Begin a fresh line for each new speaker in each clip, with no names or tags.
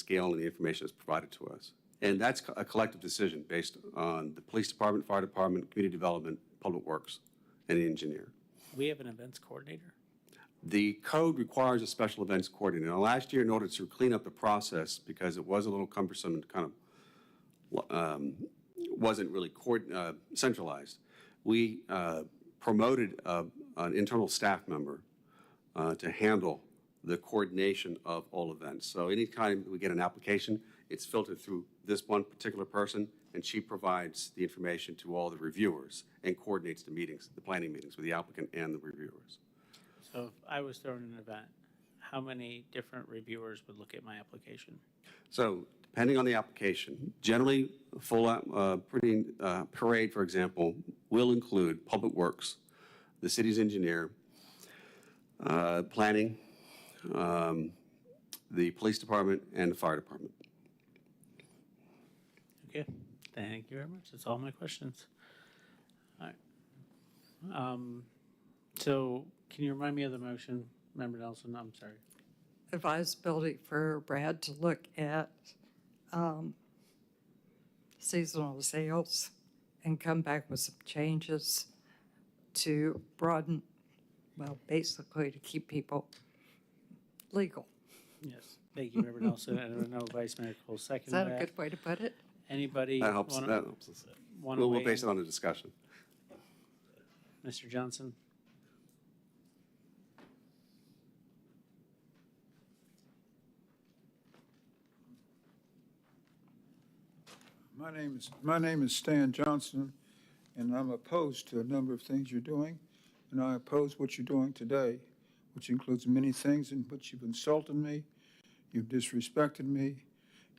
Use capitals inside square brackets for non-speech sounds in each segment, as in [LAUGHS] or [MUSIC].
scale and the information that's provided to us. And that's co- a collective decision based on the police department, fire department, community development, public works, and the engineer.
We have an events coordinator.
The code requires a special events coordinator. Now, last year, in order to clean up the process, because it was a little cumbersome and kind of um, wasn't really coord- uh, centralized, we uh, promoted uh, an internal staff member uh, to handle the coordination of all events. So anytime we get an application, it's filtered through this one particular person, and she provides the information to all the reviewers and coordinates the meetings, the planning meetings with the applicant and the reviewers.
So if I was throwing an event, how many different reviewers would look at my application?
So depending on the application, generally, a full, uh, pretty, uh, parade, for example, will include Public Works, the city's engineer, uh, planning, um, the police department, and the fire department.
Okay, thank you very much. That's all my questions. All right. Um, So can you remind me of the motion, Member Nelson? I'm sorry.
advisability for Brad to look at um, seasonal sales and come back with some changes to broaden, well, basically to keep people legal.
Yes, thank you, Member Nelson. And I don't know Vice Mayor Cole
Is
seconded
that a
that.
good way to put it?
Anybody
That helps, that
want
helps us.
to
We'll, we'll
weigh
base
in?
it on the discussion.
Mr. Johnson?
My name is, my name is Stan Johnson, and I'm opposed to a number of things you're doing, and I oppose what you're doing today, which includes many things in which you've insulted me, you've disrespected me,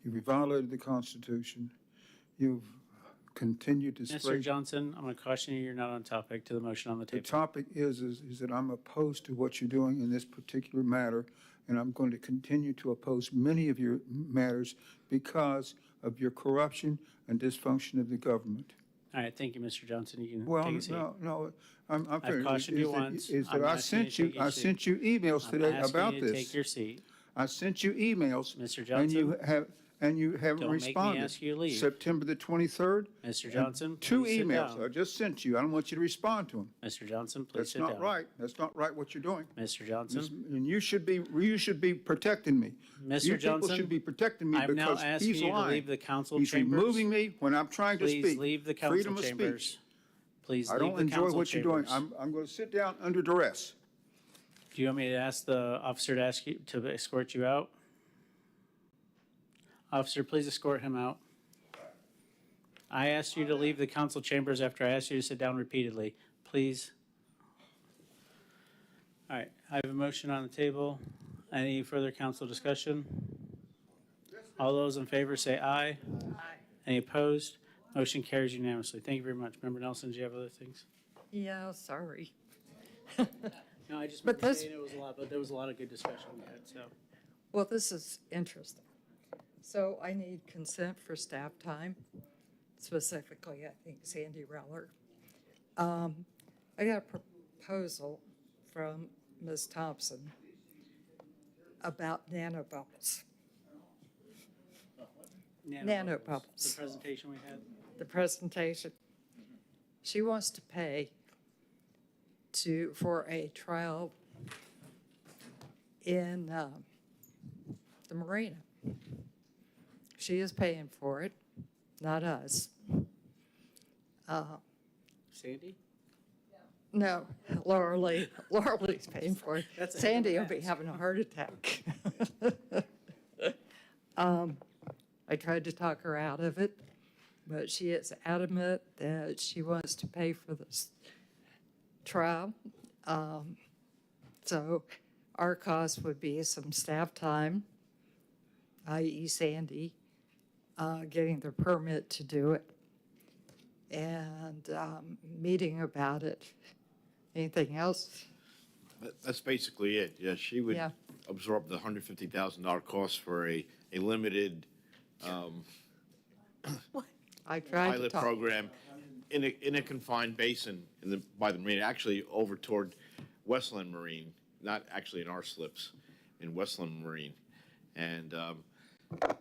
you've violated the Constitution, you've continued to
Mr.
spread.
Johnson, I'm going to caution you, you're not on topic to the motion on the
The
table.
topic is, is, is that I'm opposed to what you're doing in this particular matter, and I'm going to continue to oppose many of your matters because of your corruption and dysfunction of the government.
All right, thank you, Mr. Johnson. You can
Well,
take a seat.
no, no, I'm, I'm.
I've
fair.
cautioned
Is
you
that-
once.
Is
I'm
that I
asking you to
sent you,
take your
I
seat.
sent you emails
I'm
today
asking
about
you to Take
this.
your seat.
I sent you emails.
Mr.
And you
Johnson?
have, and you haven't
Don't make me
responded.
ask you to leave.
September the twenty-third.
Mr. Johnson,
Two
please sit
emails I
down.
just sent you. I don't want you to respond to them.
Mr. Johnson, please
That's
sit down.
not right. That's not right what you're doing.
Mr.
Miss-
Johnson,
And you should be, you should be protecting me.
Mr.
You
Johnson,
people should be protecting me
I'm now
because
asking
he's
you to
lying.
leave the council
He's
chambers.
removing me when I'm trying to speak.
Please leave the council
Freedom of speech.
chambers. Please
I
leave
don't
the
enjoy
council
what you're doing.
chambers.
I'm, I'm going to sit down under duress.
Do you want me to ask the officer to ask you, to escort you out? Officer, please escort him out. I asked you to leave the council chambers after I asked you to sit down repeatedly. Please. All right, I have a motion on the table. Any further council discussion? All those in favor say aye. Aye. Any opposed? Motion carries unanimously. Thank you very much. Member Nelson, do you have other things?
Yeah, sorry.
No, I just
But
remember
this-
saying it was a lot, but there was a lot of good discussion we had, so.
Well, this is interesting. So I need consent for staff time, specifically, I think Sandy Reller. Um, I got a proposal from Ms. Thompson about nanobubbles.
The
Nanobubbles.
presentation we had.
the presentation. She wants to pay to, for a trial in um, the marina. She is paying for it, not us. Uh,
Sandy?
No, Laura Lee, Laura Lee's paying for it.
That's a heck of
Sandy
an
will be
ask.
having a
[LAUGHS]
heart attack. Um, I tried to talk her out of it, but she is adamant that she wants to pay for this trial. Um, So our cost would be some staff time, i.e. Sandy, uh, getting the permit to do it and um, meeting about it. Anything else?
That- That's basically it. Yeah, she would
Yeah.
absorb the hundred fifty thousand dollar cost for a, a limited um,
I tried to
pilot
talk.
program in a, in a confined basin in the, by the marine, actually over toward Westland Marine, not actually in our slips, in Westland Marine. And um,